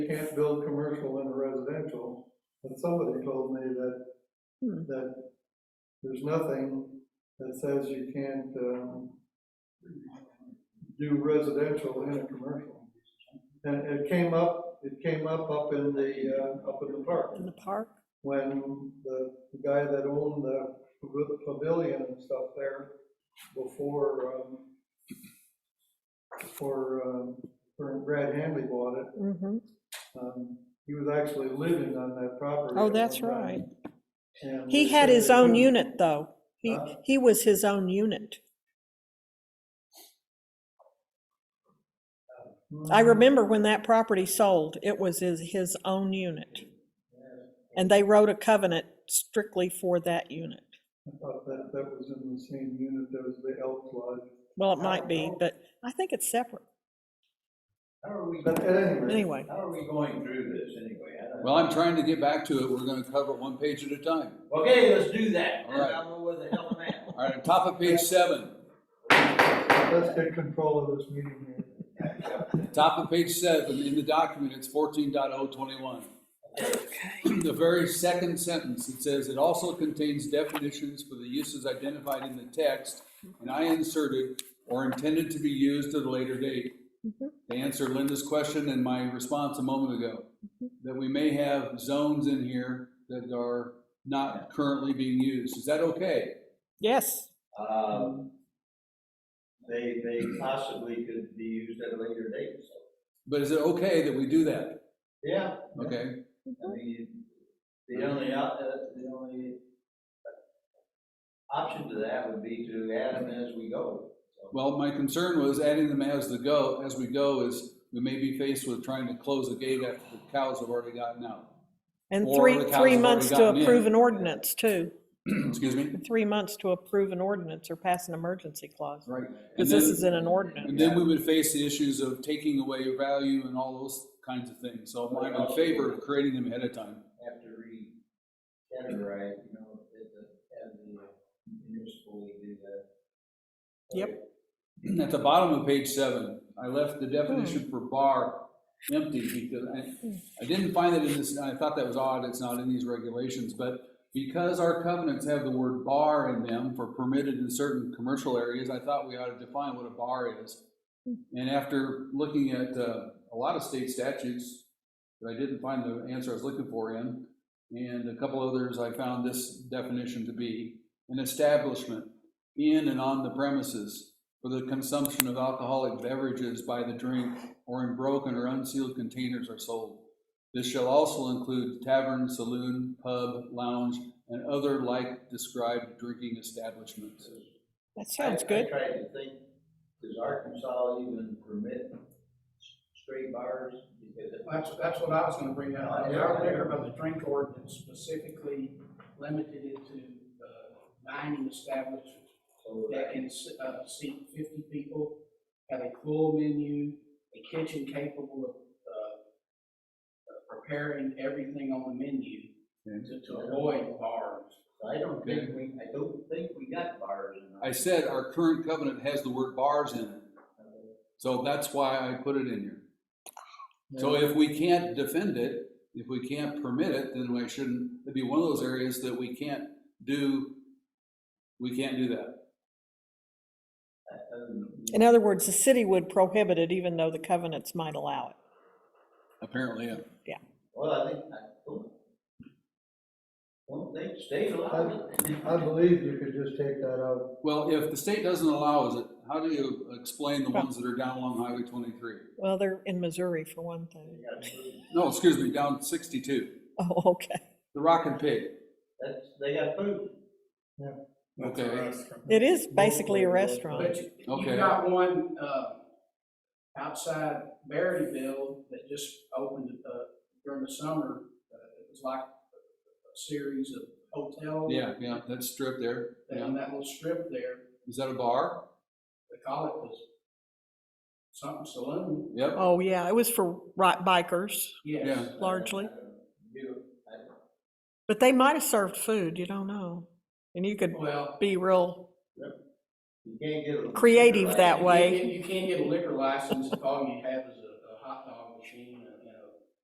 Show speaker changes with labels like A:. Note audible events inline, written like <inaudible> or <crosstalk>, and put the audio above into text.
A: can't build commercial in a residential, but somebody told me that,
B: Hmm.
A: that there's nothing that says you can't, um, do residential in a commercial. And it came up, it came up up in the, uh, up in the park,
B: in the park.
A: when the the guy that owned the pavilion and stuff there before, um, before, um, when Brad Hamley bought it,
B: Mm-hmm.
A: um, he was actually living on that property.
B: Oh,
A: at
B: that's
A: one time,
B: right.
A: and
B: He
A: they
B: had
A: said
B: his
A: they
B: own
A: couldn't-
B: unit, though. He,
A: Huh?
B: he was his own unit. I
A: Mm-hmm.
B: remember when that property sold, it was his, his own unit.
A: Mm-hmm.
B: And they wrote a covenant strictly for that unit.
A: I thought that, that was in the same unit that was the Elks Lodge.
B: Well, it might be, but I think it's separate.
C: How are we,
A: But at any rate.
B: Anyway,
C: how are we going through this anyway? I don't-
D: Well, I'm trying to get back to it. We're gonna cover it one page at a time.
C: Okay, let's do that,
D: All
C: and
D: right.
C: I'll know where the hell I'm at.
D: All right, top of page seven,
A: Let's get control of this meeting here.
D: top of page seven, in the document, it's 14.021. The very second sentence, it says, it also contains definitions for the uses identified in the text and I inserted or intended to be used at a later date. To answer Linda's question and my response a moment ago, that we may have zones in here that are not currently being used. Is that okay?
B: yes,
C: <laughs> Um, They, they possibly could be used at a later date, so.
D: But is it okay that we do that?
C: Yeah.
D: Okay,
C: I mean, the only, op- uh, the only option to that would be to add them as we go. so.
D: well, my concern was adding them as the go, as we go is we may be faced with trying to close the gate after the cows have already gotten out. <clears throat>
B: and
D: Or
B: three,
D: the cows have
B: three
D: already
B: months to
D: gotten in.
B: approve an ordinance, too.
D: Excuse me?
B: Three months to approve an ordinance or pass an emergency clause,
D: Right.
B: because this is in an ordinance.
D: And then we would face the issues of taking away value and all those kinds of things. So I'm in favor of creating them ahead of time.
C: Have to re-categorize, you know, at the, at the municipal, we do that.
B: Yep.
D: At the bottom of page seven, I left the definition for bar empty because I, I didn't find it in this, I thought that was odd, it's not in these regulations, but because our covenants have the word bar in them for permitted in certain commercial areas, I thought we ought to define what a bar is. And after looking at uh, a lot of state statutes that I didn't find the answer I was looking for in, and a couple others, I found this definition to be an establishment in and on the premises for the consumption of alcoholic beverages by the drink or in broken or unsealed containers are sold. This shall also include tavern, saloon, pub, lounge, and other like described drinking establishments.
B: That sounds
C: I-
B: good.
C: I tried to think, does Arkansas even permit s- straight bars? Because it-
E: That's, that's what I was gonna bring up. They are there, but the drink ordinance specifically limited it to, uh, dining establishments
C: so
E: that can, s- uh, seat fifty people, have a full menu, a kitchen capable of, uh, of preparing everything on the menu to, to avoid bars.
C: I don't think we, I don't think we got bars in.
D: I said our current covenant has the word bars in it,
C: Arkansas.
D: so that's why I put it in here. So if we can't defend it, if we can't permit it, then we shouldn't, it'd be one of those areas that we can't do, we can't do that.
C: I- I don't know.
B: In other words, the city would prohibit it even though the covenants might allow it.
D: Apparently, yeah.
C: Well, I think, I don't, don't think state allowed it.
A: I believe you could just take that out.
D: Well, if the state doesn't allow us, how do you explain the ones that are down along Highway twenty-three?
B: Well, they're in Missouri for one thing.
D: No, excuse me, down sixty-two,
B: <laughs> Oh, okay.
D: the Rock and Pig.
C: That's, they got food.
D: Okay,
B: It is basically a restaurant.
E: But you-
D: Okay.
E: you've got one, uh, outside Berryville that just opened, uh, during the summer. Uh, It was like a series of hotels.
D: yeah, yeah, that strip there, yeah.
E: down that little strip there,
D: Is that a bar?
E: they call it was something saloon,
D: Yep,
B: Oh, yeah, it was for ri- bikers,
E: yes.
D: Yeah.
B: Largely.
C: You, I-
B: but they might have served food, you don't know. And you could
E: Well.
B: be real,
C: you can't get. a-
B: Creative that
E: you
B: way.
E: can't get- You can't get a liquor license if all you have is